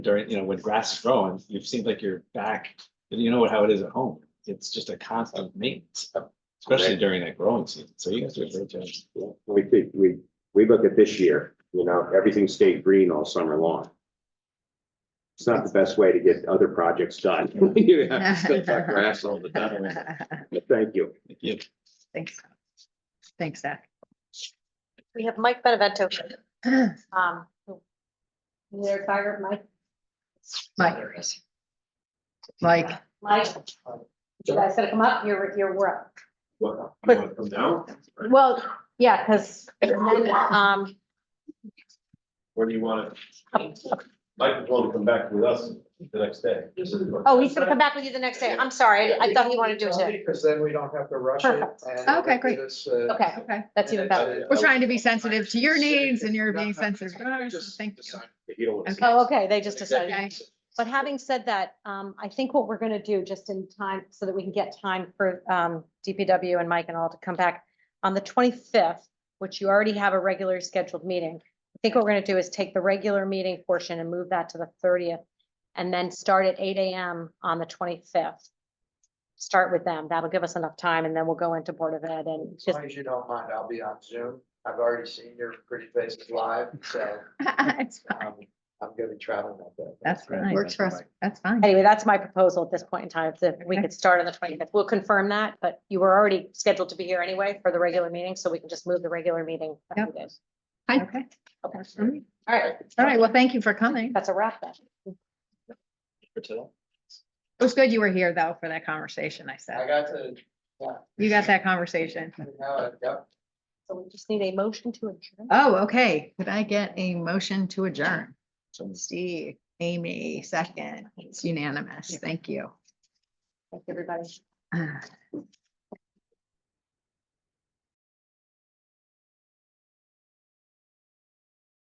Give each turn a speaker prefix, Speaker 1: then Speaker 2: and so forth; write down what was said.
Speaker 1: during, you know, when grass is growing, it seems like you're back, you know how it is at home. It's just a constant maintenance, especially during that growing season. So you guys do a great job.
Speaker 2: We think, we, we look at this year, you know, everything stayed green all summer long. It's not the best way to get other projects done. You have to still cut grass all the time. Thank you.
Speaker 1: Yeah,
Speaker 3: Thanks. Thanks, Zach.
Speaker 4: We have Mike Benevento. Um,
Speaker 5: Their fire, Mike,
Speaker 3: Mike. Mike,
Speaker 5: Mike, you guys gotta come up, you're, you're, we're up.
Speaker 4: well, yeah, because, um,
Speaker 6: Where do you want it? Mike is willing to come back with us the next day.
Speaker 4: oh, he's gonna come back with you the next day. I'm sorry. I I thought he wanted to do it today.
Speaker 7: Because then we don't have to rush it.
Speaker 4: Perfect.
Speaker 7: and
Speaker 3: Okay,
Speaker 7: it'll
Speaker 3: great.
Speaker 7: get us, uh,
Speaker 4: Okay,
Speaker 3: okay,
Speaker 4: that's even better.
Speaker 7: and- uh,
Speaker 3: we're trying to be sensitive to your
Speaker 7: City
Speaker 3: needs and you're
Speaker 7: not
Speaker 3: being
Speaker 7: have to
Speaker 3: sensitive to ours, so
Speaker 7: just
Speaker 3: thank you.
Speaker 7: decide.
Speaker 2: If you don't want to.
Speaker 3: Okay.
Speaker 4: Oh, okay, they just decided.
Speaker 3: Okay.
Speaker 4: But having said that, um, I think what we're gonna do, just in time, so that we can get time for, um, DPW and Mike and all to come back on the twenty-fifth, which you already have a regular scheduled meeting. I think what we're gonna do is take the regular meeting portion and move that to the thirtieth, and then start at eight AM on the twenty-fifth. Start with them. That'll give us enough time, and then we'll go into Board of Ed and
Speaker 7: As
Speaker 4: just,
Speaker 7: long as you don't mind, I'll be on Zoom. I've already seen your pretty faces live, so
Speaker 3: It's fine.
Speaker 7: um, I'm gonna be traveling that day.
Speaker 3: That's fine. Works for us. That's fine.
Speaker 4: anyway, that's my proposal at this point in time, that we could start on the twenty-fifth. We'll confirm that, but you were already scheduled to be here anyway for the regular meeting, so we can just move the regular meeting. a few days.
Speaker 3: Okay.
Speaker 4: Okay.
Speaker 3: All
Speaker 4: All right,
Speaker 3: right, well, thank you for coming.
Speaker 4: that's a wrap then.
Speaker 1: for today.
Speaker 3: It was good you were here though for that conversation, I
Speaker 7: I
Speaker 3: said.
Speaker 7: got to,
Speaker 3: You got that conversation.
Speaker 7: now, I- yep.
Speaker 4: So we just need a motion to adjourn.
Speaker 3: Oh, okay. Could I get a motion to adjourn?
Speaker 1: So-
Speaker 3: Steve, Amy, second. It's unanimous. Thank you.
Speaker 4: Thank you, everybody.
Speaker 3: Ah,